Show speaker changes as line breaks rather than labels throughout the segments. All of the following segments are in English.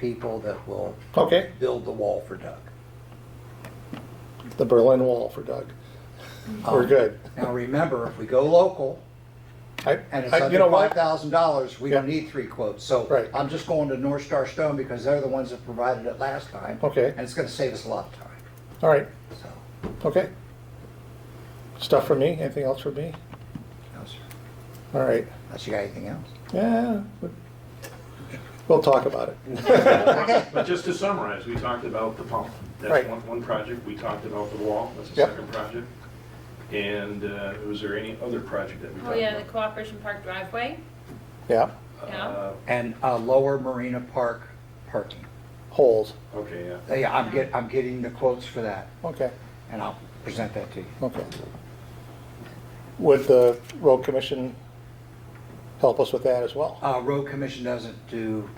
people that will
Okay,
build the wall for Doug.
the Berlin Wall for Doug. We're
Um,
good.
Now, remember, if we go local
I,
and it's
I, you know
under five
what?
thousand dollars, we don't
Yeah.
need three quotes. So
Right.
I'm just going to North Star Stone because they're the ones that provided it last time.
Okay.
And it's gonna save us a lot of time,
All right,
so.
okay. Stuff for me? Anything else for me?
no, sir.
All right.
Unless you got anything else?
Yeah, we- we'll talk about it.
But just to summarize, we talked about the pump.
Right.
That's one, one project. We talked about the wall. That's the
Yep.
second project. And uh, was there any other project that we
Oh,
talked
yeah, the
about?
Cooperation Park driveway.
Yeah,
yeah.
Uh,
And, uh, Lower Marina Park parking.
holes.
Uh, Okay, yeah.
Yeah, I'm get, I'm getting the quotes for that
Okay,
and I'll present that to you.
okay. Would the road commission help us with that as well?
Uh, road commission doesn't do,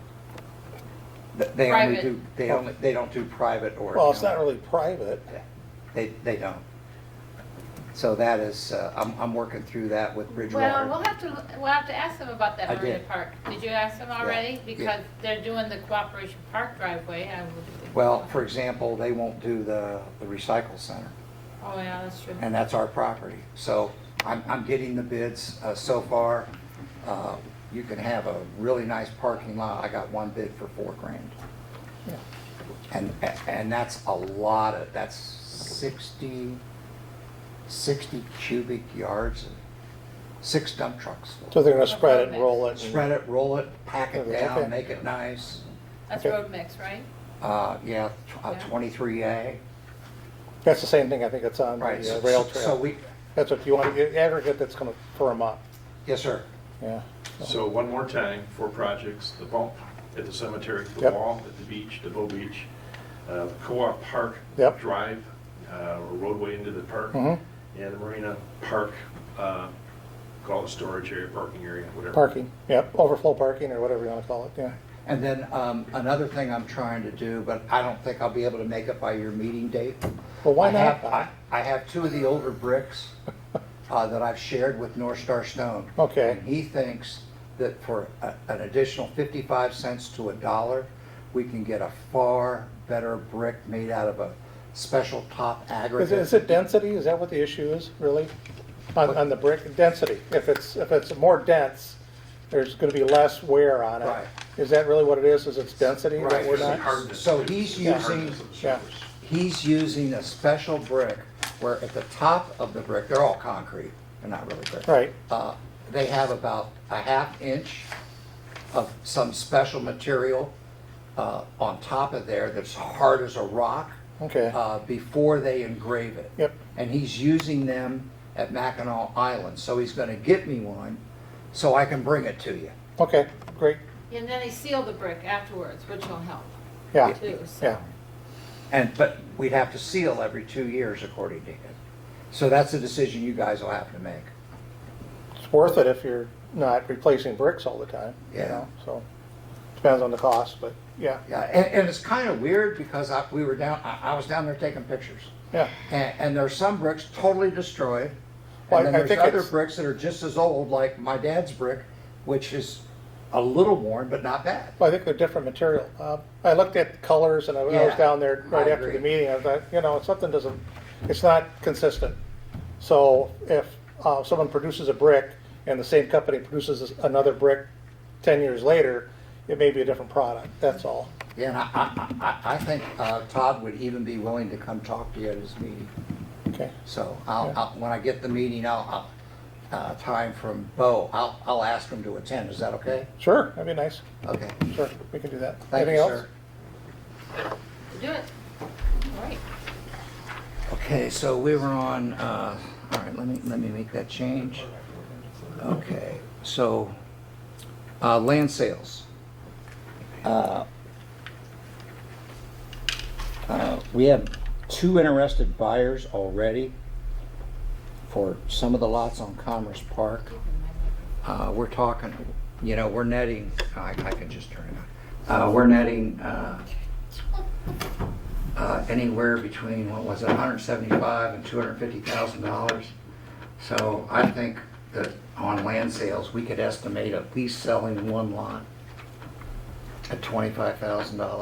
th- they only
Private.
do, they only, they don't do private or.
Well, it's not really private.
Yeah, They, they don't. So that is, uh, I'm, I'm working through that with
Well,
Bridgewater.
we'll have to, we'll have to ask them about
I
that Marina
did.
Park. Did you ask them already? Because they're doing the Cooperation Park driveway. I would-
Well, for example, they won't do the, the recycle center,
Oh, yeah, that's true.
and that's our property. So I'm, I'm getting the bids, uh, so far. Uh, you can have a really nice parking lot. I got one bid for four grand.
Yeah.
And, and that's a lot of, that's 60, 60 cubic yards, and six dump trucks.
So they're gonna spread it and roll it. and-
Spread it, roll it, pack it
Okay.
down, make it nice.
That's
okay.
road mix, right?
Uh, yeah, tw- uh,
Yeah.
23A,
That's the same thing I think it's on
right.
the uh,
so-
rail
So
trail.
we,
That's what you want, to aggregate that's gonna firm up,
yes, sir.
yeah.
So one more time, four projects, the pump at the cemetery, the
Yep.
wall at the beach, the Bow Beach, uh, the Co-op Park
Yep.
Drive, uh, or roadway into the park,
Mhm.
and the Marina Park, uh, call it storage area, parking area, whatever.
Parking, yep, overflow parking or whatever you wanna call it, yeah.
And then um, another thing I'm trying to do, but I don't think I'll be able to make it by your meeting date.
Well, why
I have-
not?
I I have two of the older bricks uh, that I've shared with North Star Stone.
Okay.
And he thinks that for a- an additional 55 cents to a dollar, we can get a far better brick made out of a special top
Is it, is
aggregate.
it density, is that what the issue is, really? On, on the brick, density, if it's, if it's more dense, there's gonna be less wear on
Right.
it. Is that really what it is, is it's density that
Right.
we're
It's the
not?
hardness.
So
It's
he's
the
using-
hardness of the
yeah.
surface.
He's using a special brick where at the top of the brick, they're all concrete, they're not really brick.
Right,
uh, they have about a half inch of some special material uh, on top of there that's hard as a rock
okay,
uh, before they engrave it.
Yep.
And he's using them at Mackinac Island, so he's gonna get me one so I can bring it to you.
okay, great,
And then they seal the brick afterwards, which will help
yeah,
too, so.
yeah,
And, but we'd have to seal every two years according to him. So that's a decision you guys will have to make.
it's worth it if you're not replacing bricks all the time, you
Yeah.
know, so. Depends on the cost, but, yeah,
Yeah, and, and it's kind of weird because I, we were down, I, I was down there taking pictures.
yeah,
And, and there's some bricks totally destroyed.
Well,
And
I-
then
I
there's
think
other
it's-
bricks that are just as old, like my dad's brick, which is a little worn, but not bad.
Well, I think they're different material. Uh, I looked at colors and I I was
Yeah,
down there right
I
after the
agree.
meeting, I thought, you know, something doesn't, it's not consistent. So if uh, someone produces a brick and the same company produces another brick 10 years later, it may be a different product, that's all.
Yeah, and I, I, I, I think uh, Todd would even be willing to come talk to you at his meeting.
Okay,
So I'll,
Yeah.
I'll, when I get the meeting, I'll, I'll, uh, time from Bo, I'll, I'll ask him to attend. Is that okay?
sure, that'd be nice,
Okay.
sure, we can do that.
Thank you,
Anything else?
sir.
Do it. All right.
Okay, so we were on, uh, all right, let me, let me make that change. Okay, so, uh, land sales. Uh, uh, We have two interested buyers already for some of the lots on Commerce Park. Uh, we're talking, you know, we're netting, I, I can just turn it on. Uh, we're netting, uh, uh, anywhere between, what was it, 175 and 250,000 dollars. So I think that on land sales, we could estimate at least selling one lot at twenty-five thousand dollars.